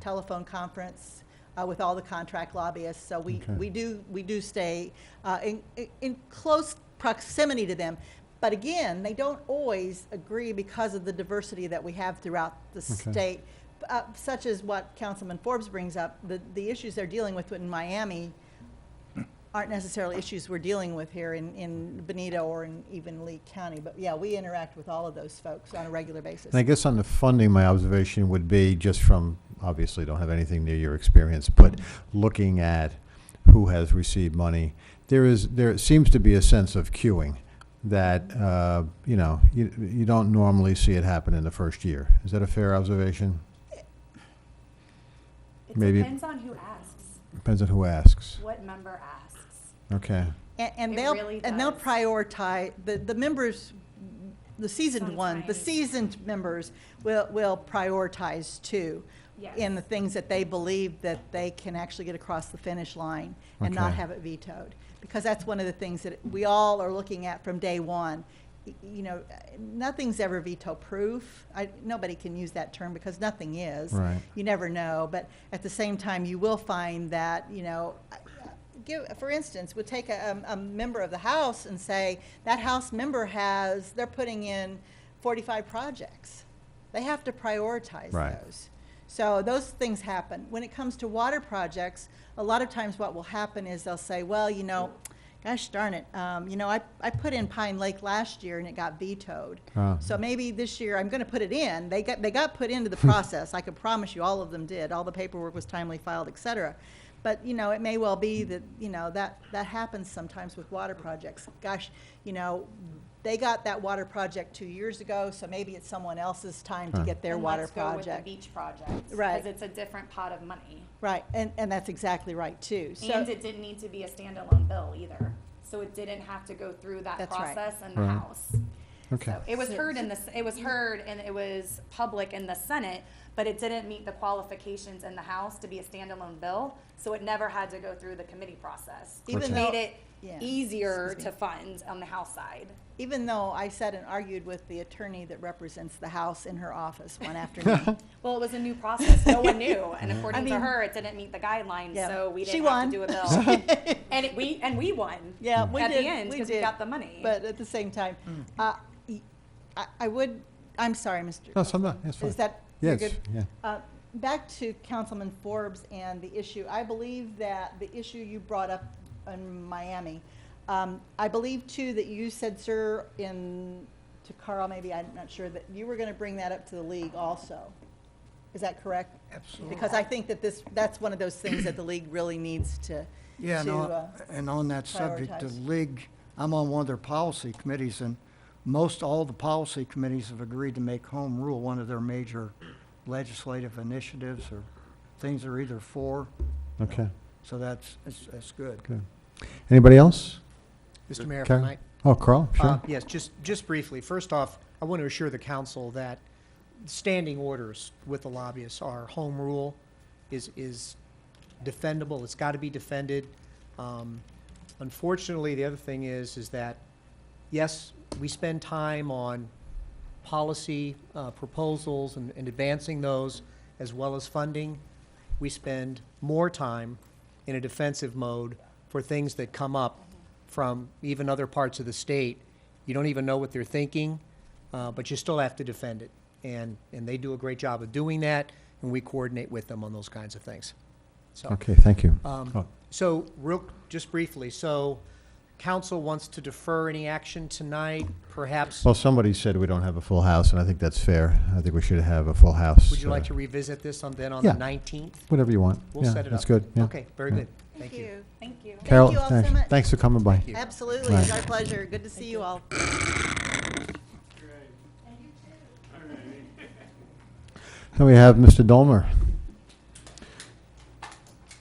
telephone conference uh, with all the contract lobbyists. So we, Okay. we do, we do stay uh, in, in- in close proximity to them. But again, they don't always agree because of the diversity that we have throughout the Okay. state, uh, such as what Councilman Forbes brings up, the, the issues they're dealing with in Miami aren't necessarily issues we're dealing with here in, in Benito or in even Lee County. But yeah, we interact with all of those folks on a regular basis. And I guess on the funding, my observation would be just from, obviously don't have anything near your experience, but looking at who has received money, there is, there seems to be a sense of queuing that, uh, you know, you, you don't normally see it happen in the first year. Is that a fair observation? It Maybe- depends on who asks, Depends on who asks. what member asks. Okay, And, and It they'll really and they'll does. prioritize the, the members, the seasoned one, the Sometimes. seasoned members will will prioritize too, in the Yes. things that they believe that they can actually get across the finish line and not Okay. have it vetoed, because that's one of the things that we all are looking at from day one. Y- You know, nothing's ever veto proof. I, nobody can use that term because nothing is right. you never know. But at the same time, you will find that, you know, give, for instance, we'll take a, um, a member of the House and say, that House member has, they're putting in 45 projects. They have to prioritize Right. those. So those things happen. When it comes to water projects, a lot of times what will happen is they'll say, well, you know, gosh darn it, um, you know, I, I put in Pine Lake last year and it got vetoed. Ah. So maybe this year I'm going to put it in. They got, they got put into the process. I can promise you all of them did. All the paperwork was timely filed, et cetera. But, you know, it may well be that, you know, that, that happens sometimes with water projects. Gosh, you know, they got that water project two years ago, so maybe it's someone else's time to Huh. get their And water let's project. go with the beach project. Right. Because it's a different pot of money. Right, and, and that's exactly right, too. So, And it didn't need to be a standalone bill either. So it didn't have to go through that That's right. process in the Right. House. Okay, So It was So- heard in the, s- it was heard and it was public in the Senate, but it didn't meet the qualifications in the House to be a standalone bill. So it never had to go through the committee process. Even which though- Made it Yeah. easier Excuse to fund on the House side. even though I sat and argued with the attorney that represents the House in her office one afternoon. Well, it was a new process. No one knew, and according to mean- her, it didn't meet the guidelines, Yeah. so we She didn't have to do won. a bill. and it, we and we won. Yeah, we at did. the end we because we did. got the money. But at the same time, uh, y- I, I would, I'm sorry, Mr. no, so I'm not, that's fine. Is that, you're Yes, good? yeah, Uh, Back to Councilman Forbes and the issue, I believe that the issue you brought up in Miami, um, I believe too that you said, sir, in, to Carl, maybe, I'm not sure, that you were gonna bring that up to the league also. Is that correct? Absolutely. Because I think that this, that's one of those things that the league really needs to, Yeah, and to, on- uh, and on that subject, the prioritize. league, I'm on one of their policy committees, and most all the policy committees have agreed to make home rule one of their major legislative initiatives or things they're either for, okay, so that's, that's, that's good. good. Anybody else? Mr. Mayor, if I Carol? might. Oh, Carl, Uh, sure. Yes, just, just briefly. First off, I want to assure the council that standing orders with the lobbyists are home rule is, is defendable. It's got to be defended. Um, Unfortunately, the other thing is, is that, yes, we spend time on policy uh, proposals and and advancing those, as well as funding. We spend more time in a defensive mode for things that come up from even other parts of the state. You don't even know what they're thinking, uh, but you still have to defend it. And, and they do a great job of doing that, and we coordinate with them on those kinds of things. So, Okay, thank you. Oh. um, so real, just briefly, so council wants to defer any action tonight, perhaps? Well, somebody said we don't have a full house, and I think that's fair. I think we should have a full house. Would you like uh, to revisit this on, then on the Yeah. 19th? Whatever you want. We'll Yeah, set it up. That's good, yeah. Okay, very yeah. good. Thank you. Thank you. Carol, you all so thanks, much. thanks for coming by. you. absolutely, it's Right. our pleasure, good to see you all. Then we have Mr. Dolmer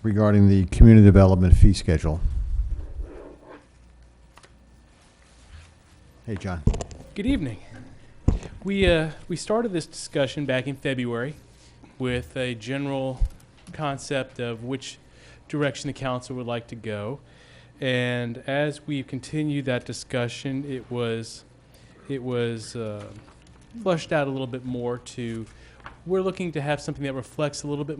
regarding the community development fee schedule. Hey, John. Good evening. We, uh, we started this discussion back in February with a general concept of which direction the council would like to go. And as we continued that discussion, it was, it was uh, flushed out a little bit more to, we're looking to have something that reflects a little bit